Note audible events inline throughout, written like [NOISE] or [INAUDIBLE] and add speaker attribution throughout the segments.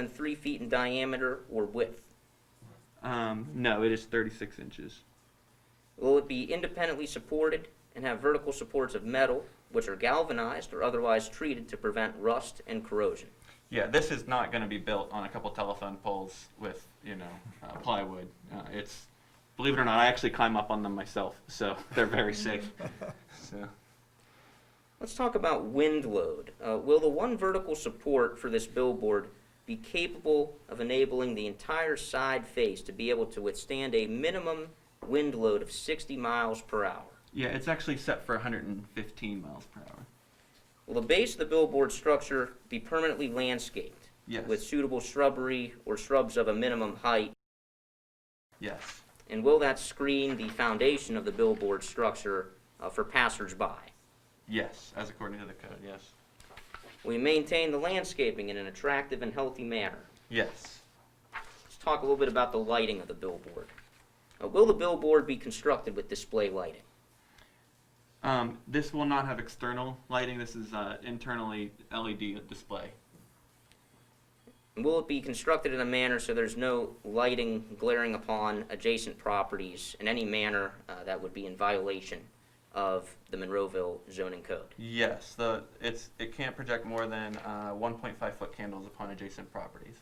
Speaker 1: than three feet in diameter or width?
Speaker 2: Um, no, it is 36 inches.
Speaker 1: Will it be independently supported and have vertical supports of metal, which are galvanized or otherwise treated to prevent rust and corrosion?
Speaker 2: Yeah, this is not going to be built on a couple telephone poles with, you know, uh, plywood. Uh, it's, believe it or not, I actually climb up on them myself, so [LAUGHS] they're very safe. so,
Speaker 1: Let's talk about wind load. Uh, will the one vertical support for this billboard be capable of enabling the entire side face to be able to withstand a minimum wind load of 60 miles per hour?
Speaker 2: yeah, it's actually set for 115 miles per hour.
Speaker 1: Will the base of the billboard structure be permanently landscaped
Speaker 2: Yes.
Speaker 1: with suitable shrubbery or shrubs of a minimum height?
Speaker 2: yes.
Speaker 1: And will that screen the foundation of the billboard structure uh, for passersby?
Speaker 2: Yes, as according to the code, yes.
Speaker 1: We maintain the landscaping in an attractive and healthy manner.
Speaker 2: Yes.
Speaker 1: Let's talk a little bit about the lighting of the billboard. Uh, will the billboard be constructed with display lighting?
Speaker 2: Um, this will not have external lighting. This is uh, internally LED display.
Speaker 1: And will it be constructed in a manner so there's no lighting glaring upon adjacent properties in any manner uh, that would be in violation of the Monroeville zoning code?
Speaker 2: Yes, the it's it can't project more than uh, 1.5 foot candles upon adjacent properties.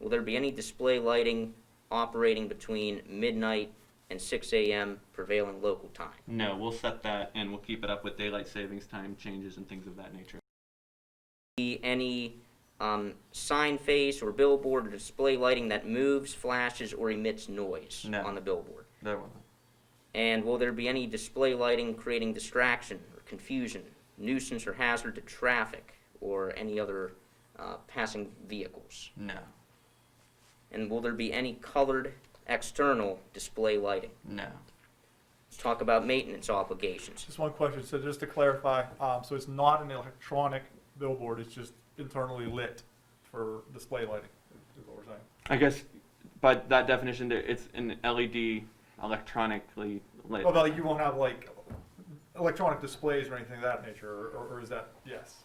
Speaker 1: Will there be any display lighting operating between midnight and 6 a.m. prevailing local time?
Speaker 2: No, we'll set that and we'll keep it up with daylight savings time changes and things of that nature.
Speaker 1: Be any um, sign face or billboard or display lighting that moves, flashes, or emits noise
Speaker 2: No.
Speaker 1: on the billboard?
Speaker 2: There will.
Speaker 1: And will there be any display lighting creating distraction or confusion, nuisance or hazard to traffic or any other uh, passing vehicles?
Speaker 2: No,
Speaker 1: And will there be any colored external display lighting?
Speaker 2: no.
Speaker 1: Let's talk about maintenance obligations.
Speaker 3: Just one question, so just to clarify, um, so it's not an electronic billboard, it's just internally lit for display lighting, is what we're saying?
Speaker 2: I guess by that definition, there- it's an LED electronically lit.
Speaker 3: Well, but like, you won't have like electronic displays or anything of that nature, or- or, or is that, yes?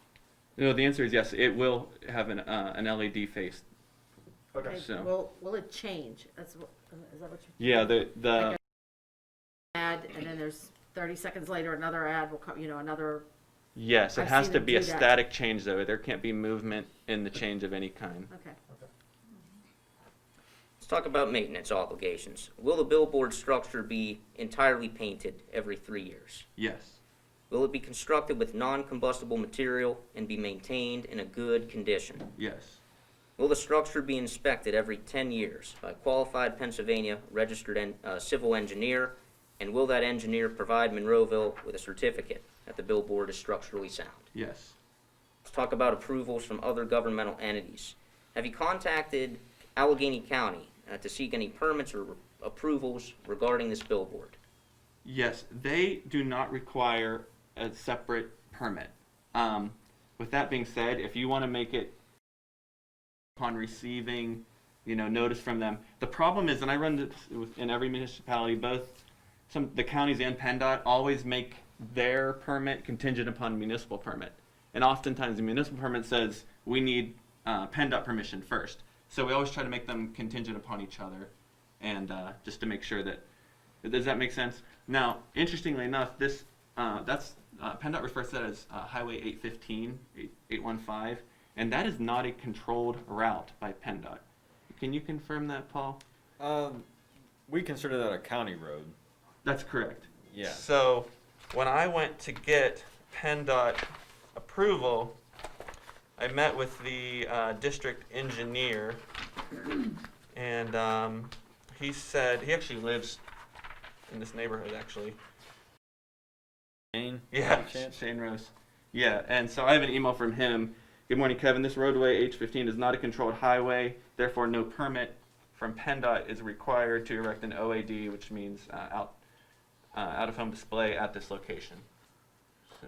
Speaker 2: No, the answer is yes. It will have an uh, an LED face.
Speaker 3: Okay,
Speaker 4: Okay,
Speaker 2: So-
Speaker 4: Will, will it change? That's, wha- is that what you?
Speaker 2: Yeah, the the
Speaker 4: Like a Ad, and then there's thirty seconds later, another ad will come, you know, another,
Speaker 2: yes, it
Speaker 4: I've
Speaker 2: has
Speaker 4: seen
Speaker 2: to
Speaker 4: them
Speaker 2: be a
Speaker 4: do that.
Speaker 2: static change though. There can't be movement in the change of any kind.
Speaker 4: okay.
Speaker 1: Let's talk about maintenance obligations. Will the billboard structure be entirely painted every three years?
Speaker 2: Yes,
Speaker 1: Will it be constructed with non combustible material and be maintained in a good condition?
Speaker 2: yes,
Speaker 1: Will the structure be inspected every 10 years by a qualified Pennsylvania registered en- uh, civil engineer? And will that engineer provide Monroeville with a certificate that the billboard is structurally sound?
Speaker 2: yes.
Speaker 1: Let's talk about approvals from other governmental entities. Have you contacted Allegheny County uh, to seek any permits or approvals regarding this billboard?
Speaker 2: Yes, they do not require a separate permit. Um, with that being said, if you want to make it upon receiving, you know, notice from them, the problem is, and I run this with- in every municipality, both some the counties and PennDOT always make their permit contingent upon municipal permit, and oftentimes the municipal permit says we need uh, PennDOT permission first. So we always try to make them contingent upon each other, and uh, just to make sure that does that make sense? Now, interestingly enough, this uh, that's uh, PennDOT refers to that as uh, Highway 815, 8- 815, and that is not a controlled route by PennDOT. Can you confirm that, Paul?
Speaker 5: Um, we consider that a county road.
Speaker 2: That's correct.
Speaker 5: Yeah.
Speaker 2: So when I went to get PennDOT approval, I met with the uh, district engineer, and um, he said he actually lives in this neighborhood. Actually,
Speaker 5: Main,
Speaker 2: yeah,
Speaker 5: by chance?
Speaker 2: Shane Rose. Yeah, and so I have an email from him. Good morning, Kevin. This roadway H15 is not a controlled highway, therefore no permit from PennDOT is required to erect an OAD, which means uh, out uh, out of home display at this location. So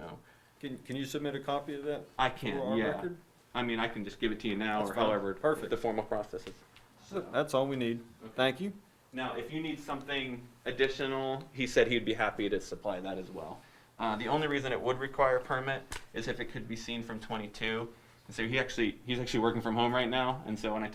Speaker 5: Can, can you submit a copy of that?
Speaker 2: I
Speaker 5: for
Speaker 2: can,
Speaker 5: our
Speaker 2: yeah.
Speaker 5: record?
Speaker 2: I mean, I can just give it to you now,
Speaker 5: That's
Speaker 2: or
Speaker 5: fine.
Speaker 2: however
Speaker 5: Perfect.
Speaker 2: the formal process is.
Speaker 5: That's all we need. Thank you.
Speaker 2: Now, if you need something additional, he said he'd be happy to supply that as well. Uh, the only reason it would require a permit is if it could be seen from 22. And so he actually he's actually working from home right now, and so when I